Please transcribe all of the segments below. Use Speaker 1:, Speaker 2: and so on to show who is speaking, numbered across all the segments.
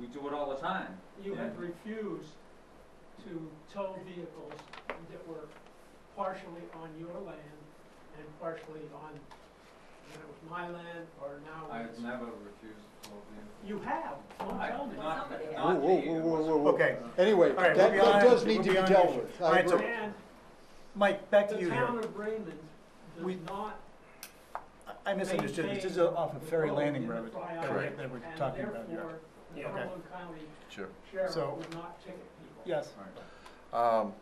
Speaker 1: we do it all the time.
Speaker 2: You had refused to tow vehicles that were partially on your land and partially on, when it was my land or now
Speaker 3: I've
Speaker 2: it's.
Speaker 3: never refused to tow vehicles.
Speaker 2: You have, don't
Speaker 3: I-
Speaker 2: tell me.
Speaker 3: Not,
Speaker 4: Somebody
Speaker 3: not
Speaker 5: Whoa, whoa,
Speaker 3: me,
Speaker 5: whoa,
Speaker 3: it
Speaker 5: whoa,
Speaker 3: was-
Speaker 5: whoa, whoa.
Speaker 6: Okay,
Speaker 5: Anyway,
Speaker 6: All right,
Speaker 5: that,
Speaker 6: we'll be
Speaker 5: that
Speaker 6: on-
Speaker 5: does need
Speaker 6: we'll
Speaker 5: to be
Speaker 6: be on
Speaker 5: dealt
Speaker 6: issue.
Speaker 5: with.
Speaker 6: All
Speaker 5: I
Speaker 6: right, so-
Speaker 5: agree.
Speaker 2: And
Speaker 6: Mike, back to
Speaker 2: the
Speaker 6: you
Speaker 2: town
Speaker 6: here.
Speaker 2: of Raymond
Speaker 6: We-
Speaker 2: does not
Speaker 6: I misunderstood, this is off of Ferry Landing Road that we're-
Speaker 2: Correct.
Speaker 6: that we're
Speaker 2: and
Speaker 6: talking about here.
Speaker 2: therefore, the
Speaker 6: Yeah. Okay.
Speaker 2: Cumberland County
Speaker 7: Sure.
Speaker 6: So-
Speaker 2: Sheriff would not ticket people.
Speaker 6: Yes,
Speaker 7: Um,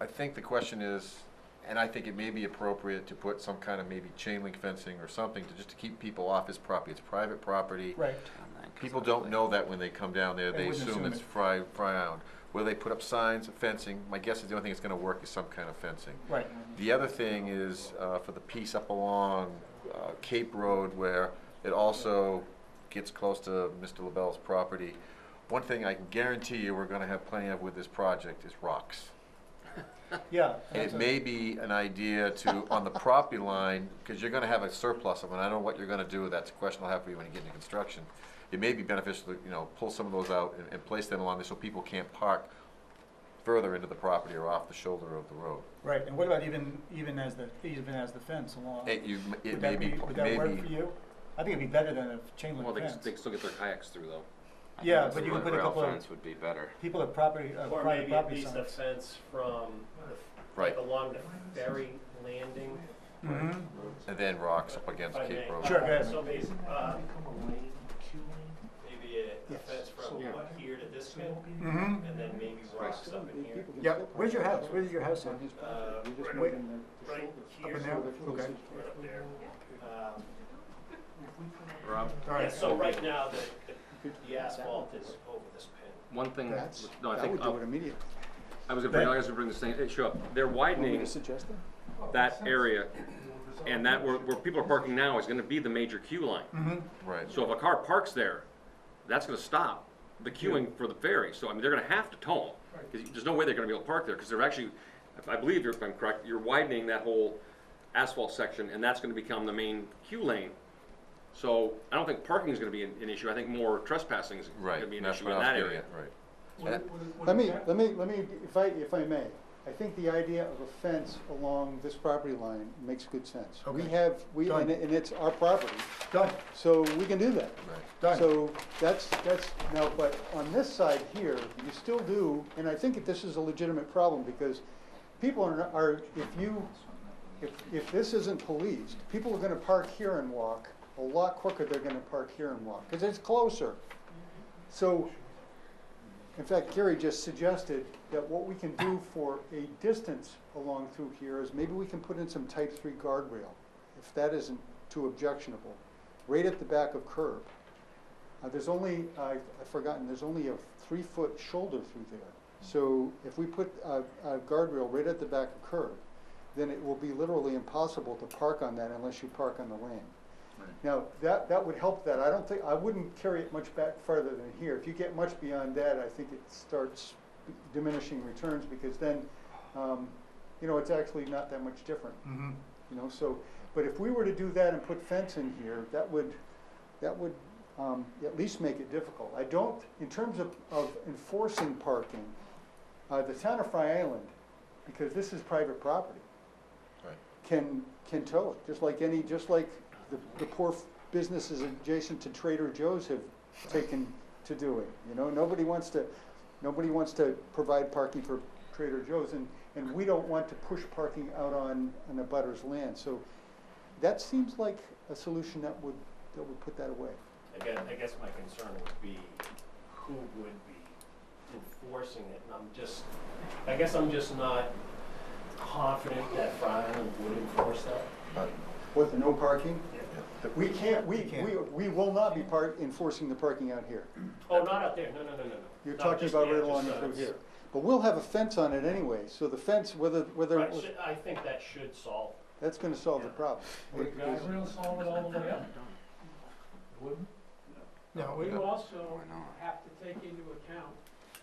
Speaker 7: I think the question is, and I think it may be appropriate to put some kind of maybe chain link fencing or something to just to keep people off his property. It's private property.
Speaker 6: right.
Speaker 7: People don't know that when they come down there.
Speaker 6: They
Speaker 7: They
Speaker 6: wouldn't
Speaker 7: assume
Speaker 6: assume
Speaker 7: it's
Speaker 6: it.
Speaker 7: fry, fry island. Where they put up signs, fencing, my guess is the only thing that's gonna work is some kind of fencing.
Speaker 6: Right.
Speaker 7: The other thing is, uh, for the piece up along, uh, Cape Road where it also gets close to Mr. LaBelle's property, one thing I can guarantee you we're gonna have plenty of with this project is rocks.
Speaker 6: Yeah.
Speaker 7: And
Speaker 6: that's
Speaker 7: it
Speaker 6: a-
Speaker 7: may be an idea to, on the property line, because you're gonna have a surplus of them, and I don't know what you're gonna do, that's a question I'll have for you when you get into construction. It may be beneficial to, you know, pull some of those out and, and place them along there so people can't park further into the property or off the shoulder of the road.
Speaker 5: Right, and what about even, even as the, even as the fence along?
Speaker 7: It, you, it
Speaker 5: Would
Speaker 7: may
Speaker 5: that
Speaker 7: be,
Speaker 5: be, would that work for
Speaker 7: maybe,
Speaker 5: you? I think it'd be better than a chain
Speaker 8: Well,
Speaker 5: link
Speaker 8: they, can- they
Speaker 5: fence.
Speaker 8: can still get their kayaks through though.
Speaker 5: Yeah, but you can put a
Speaker 8: Rail
Speaker 5: couple of,
Speaker 8: fence would be better.
Speaker 5: people at property, uh,
Speaker 9: Or
Speaker 5: private
Speaker 9: maybe at
Speaker 5: property
Speaker 9: least a
Speaker 5: signs.
Speaker 9: fence from,
Speaker 7: right,
Speaker 9: like along the ferry landing.
Speaker 5: Mhm.
Speaker 7: and then rocks up against
Speaker 9: if I
Speaker 7: Cape
Speaker 9: may.
Speaker 7: Road.
Speaker 5: Sure, go ahead.
Speaker 9: So basi- uh, maybe a- a fence from what, here to this bit,
Speaker 5: Mhm.
Speaker 9: and then maybe rocks up in here.
Speaker 5: Yep, where's your house, where's your house at?
Speaker 9: Uh,
Speaker 5: Up
Speaker 9: right- Right
Speaker 5: in
Speaker 9: here,
Speaker 5: there, okay.
Speaker 9: right up there. Um,
Speaker 8: Rob,
Speaker 5: All
Speaker 9: Yeah,
Speaker 5: right.
Speaker 9: so right now, the, the- the asphalt is over this pin.
Speaker 8: one thing,
Speaker 10: That's,
Speaker 8: no, I
Speaker 10: that
Speaker 8: think,
Speaker 10: would do
Speaker 8: oh,
Speaker 10: it immediately.
Speaker 8: I was gonna bring, I was gonna bring this thing, issue up. They're widening
Speaker 10: Suggest that?
Speaker 8: that area and that where, where people are parking now is gonna be the major queue line.
Speaker 7: Right,
Speaker 8: So if a car parks there, that's gonna stop the queuing for the ferry. So, I mean, they're gonna have to tow them. Because there's no way they're gonna be able to park there, because they're actually, if I believe, you're- if I'm correct, you're widening that whole asphalt section, and that's gonna become the main queue lane. So I don't think parking is gonna be an, an issue. I think more trespassing is
Speaker 7: right,
Speaker 8: gonna be an
Speaker 7: that's
Speaker 8: issue
Speaker 7: what
Speaker 8: in
Speaker 7: I
Speaker 8: that
Speaker 7: was getting
Speaker 8: area.
Speaker 7: at, right.
Speaker 2: Would- would- would
Speaker 10: Let me,
Speaker 2: that-
Speaker 10: let me, let me, if I, if I may, I think the idea of a fence along this property line makes good sense. We
Speaker 5: Okay.
Speaker 10: have, we,
Speaker 5: Done.
Speaker 10: and it- and it's our property,
Speaker 5: Done,
Speaker 10: so we can do that.
Speaker 7: Right.
Speaker 5: done.
Speaker 10: So that's, that's, now, but on this side here, you still do, and I think that this is a legitimate problem, because people are, are, if you, if, if this isn't policed, people are gonna park here and walk, a lot quicker they're gonna park here and walk, because it's closer. So, in fact, Gary just suggested that what we can do for a distance along through here is maybe we can put in some type three guardrail, if that isn't too objectionable, right at the back of curb. Uh, there's only, I've I've forgotten, there's only a three-foot shoulder through there. So if we put a, a guardrail right at the back of curb, then it will be literally impossible to park on that unless you park on the lane. Now, that, that would help that. I don't think, I wouldn't carry it much back farther than here. If you get much beyond that, I think it starts diminishing returns because then, um, you know, it's actually not that much different,
Speaker 5: Mhm.
Speaker 10: you know, so. But if we were to do that and put fence in here, that would, that would, um, at least make it difficult. I don't, in terms of, of enforcing parking, uh, the town of Fry Island, because this is private property,
Speaker 7: Right.
Speaker 10: can, can tow it, just like any, just like the, the poor businesses adjacent to Trader Joe's have taken to doing, you know, nobody wants to, nobody wants to provide parking for Trader Joe's, and, and we don't want to push parking out on, on a butter's land, so that seems like a solution that would, that would put that away.
Speaker 9: Again, I guess my concern would be who would be enforcing it, and I'm just, I guess I'm just not confident that Fry Island would enforce that.
Speaker 10: What, no parking? We can't, we,
Speaker 5: can't.
Speaker 10: we, we will not be part, enforcing the parking out here.
Speaker 9: Oh, not out there, no, no, no, no, no.
Speaker 10: You're
Speaker 9: Not
Speaker 10: talking
Speaker 9: just
Speaker 10: about
Speaker 9: there,
Speaker 10: right
Speaker 9: just,
Speaker 10: along
Speaker 9: uh,
Speaker 10: through here. But we'll have a fence on it anyway, so the fence, whether, whether,
Speaker 9: Right, should- I think that should solve.
Speaker 10: that's gonna solve the problem.
Speaker 2: Would guardrails solve it all the way up? Wouldn't.
Speaker 5: No, we-
Speaker 2: You also have to take into account,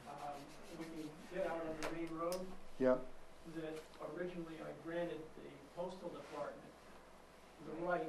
Speaker 2: um, when you get out on the main road,
Speaker 10: Yeah,
Speaker 2: that originally I granted the postal department the right